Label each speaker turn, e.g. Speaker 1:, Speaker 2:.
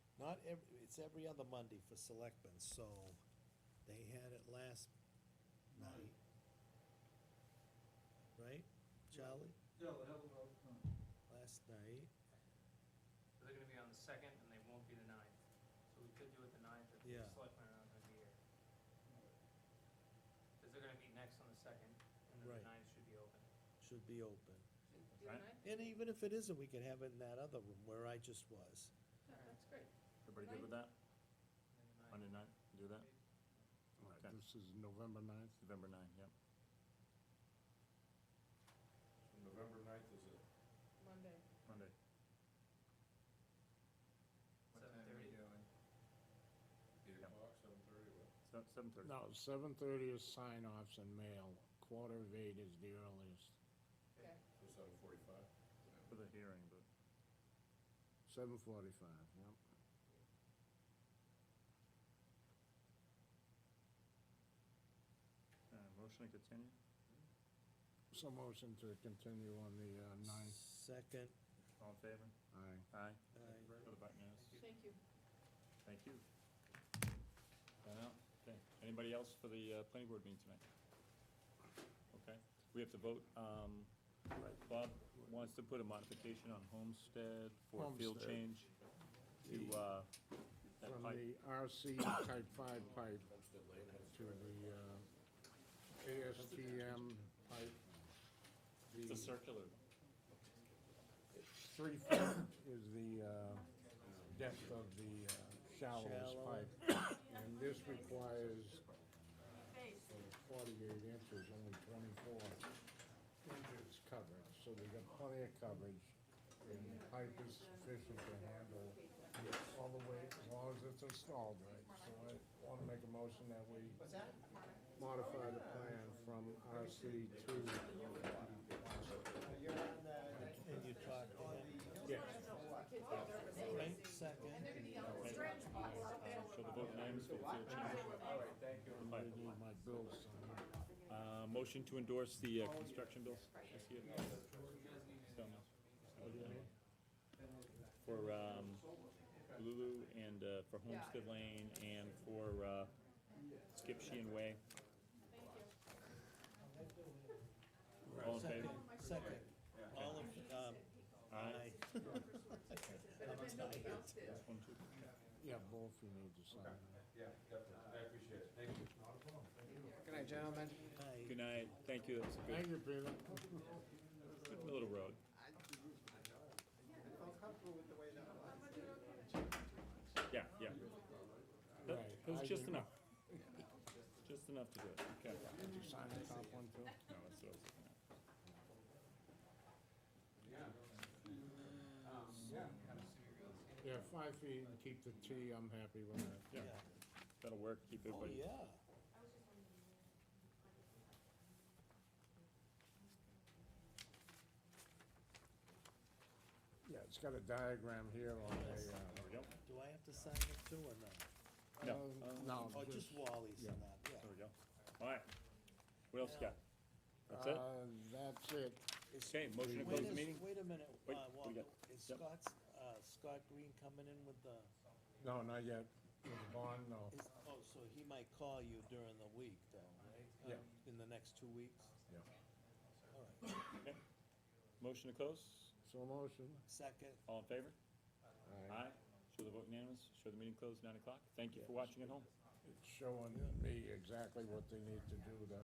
Speaker 1: not every, it's every other Monday for selectmen, so they had it last night. Right, Charlie?
Speaker 2: No, the hell no.
Speaker 1: Last night,
Speaker 3: So they're gonna be on the second and they won't be the ninth. So we could do it the ninth if
Speaker 1: Yeah.
Speaker 3: the selectmen are not gonna be here. Cause they're gonna be next on the second and then the
Speaker 1: Right.
Speaker 3: ninth should be open.
Speaker 1: should be open.
Speaker 4: Do you
Speaker 5: Right.
Speaker 4: and I?
Speaker 1: And even if it isn't, we can have it in that other room where I just was.
Speaker 4: That- That's great.
Speaker 5: Everybody good with that?
Speaker 3: And then the
Speaker 5: Monday
Speaker 3: 9th.
Speaker 5: night, do that?
Speaker 6: All right,
Speaker 5: Okay.
Speaker 6: This is November 9th.
Speaker 5: November 9, yep.
Speaker 7: November 9th is a
Speaker 4: Monday.
Speaker 5: Monday.
Speaker 3: What time are we
Speaker 2: doing?
Speaker 7: eight
Speaker 5: Yeah.
Speaker 7: o'clock, seven thirty, what?
Speaker 5: Se- 7:30.
Speaker 6: No, 7:30 is sign-offs and mail. Quarter of eight is the earliest.
Speaker 4: Okay.
Speaker 7: So seven forty-five?
Speaker 5: For the hearing, but
Speaker 6: 7:45, yep.
Speaker 5: Uh, motion to continue?
Speaker 6: So motion to continue on the uh, 9th.
Speaker 1: Second,
Speaker 5: All in favor?
Speaker 6: Aye.
Speaker 5: Aye.
Speaker 1: Aye.
Speaker 5: For the button, yes.
Speaker 4: Thank you.
Speaker 5: Thank you. Done out? Okay. Anybody else for the uh, planning board meeting tonight? Okay. We have to vote. um, Bob wants to put a modification on Homestead for a field
Speaker 6: Homestead.
Speaker 5: change to uh, that
Speaker 6: From
Speaker 5: pipe.
Speaker 6: the RC Type 5 pipe to the uh, ASTM pipe.
Speaker 5: It's a
Speaker 6: The
Speaker 5: circular.
Speaker 6: three foot is the uh, depth of the uh, shallowest
Speaker 1: Shallow.
Speaker 6: pipe. And this requires
Speaker 4: Face.
Speaker 6: 48 inches, only 24 inches coverage, so we got plenty of coverage. And the pipe is sufficient to handle all the way, as long as it's installed right. So I want to make a motion that we
Speaker 8: Uh,
Speaker 6: modify the plan from RC to,
Speaker 1: and you talk,
Speaker 6: yes,
Speaker 1: Clint, second,
Speaker 5: So the vote names for the field change.
Speaker 6: I need my bills signed.
Speaker 5: Uh, Motion to endorse the uh, construction bills this year? So, For um, Lulu and uh, for Homestead Lane and for uh, Skip Sheehan Way. All in favor?
Speaker 1: second. All of, um,
Speaker 5: Aye.
Speaker 4: Nobody else did.
Speaker 5: One, two.
Speaker 6: Yeah, both you need to sign.
Speaker 7: Yeah, definitely, I appreciate it, thank you.
Speaker 8: Good night, gentlemen.
Speaker 1: aye.
Speaker 5: Good night, thank you, that was a
Speaker 6: Thank
Speaker 5: good,
Speaker 6: you, Peter.
Speaker 5: good little road. Yeah, yeah. That
Speaker 6: Right,
Speaker 5: that was
Speaker 6: I
Speaker 5: just
Speaker 6: do-
Speaker 5: enough. Just enough to do it, okay.
Speaker 6: Did you sign the top one too?
Speaker 5: No, it's those.
Speaker 3: Um,
Speaker 6: Yeah, five feet and keep the T, I'm happy with that.
Speaker 5: Yeah,
Speaker 1: Yeah.
Speaker 5: that'll work, keep
Speaker 1: Oh,
Speaker 5: everybody.
Speaker 1: yeah.
Speaker 6: Yeah, it's got a diagram here on the,
Speaker 5: There
Speaker 6: uh,
Speaker 5: we go,
Speaker 1: Do I have to sign it too or not?
Speaker 5: No,
Speaker 6: um,
Speaker 5: um,
Speaker 1: Oh,
Speaker 6: No.
Speaker 1: just Wally's and that,
Speaker 5: there we
Speaker 1: yeah.
Speaker 5: go. All right, what else you got? That's it?
Speaker 6: Uh, That's it.
Speaker 5: Okay, motion
Speaker 1: Wait
Speaker 5: to close the
Speaker 1: a-
Speaker 5: meeting?
Speaker 1: Wait a minute,
Speaker 5: Wait,
Speaker 1: uh,
Speaker 5: what do
Speaker 1: Walter,
Speaker 5: we got?
Speaker 1: is
Speaker 5: Yep.
Speaker 1: Scott's, uh, Scott Green coming in with the,
Speaker 6: No, not yet. With the bond, no.
Speaker 1: is, oh, so he might call you during the week though, right?
Speaker 6: Yeah.
Speaker 1: Um, In the next two weeks?
Speaker 6: Yeah.
Speaker 1: All right,
Speaker 5: Okay. Motion to close,
Speaker 6: So motion.
Speaker 1: second,
Speaker 5: all in favor?
Speaker 6: Aye.
Speaker 5: Aye, show the vote unanimous, show the meeting closed, nine o'clock. Thank you for watching at home.
Speaker 6: It's showing me exactly what they need to do to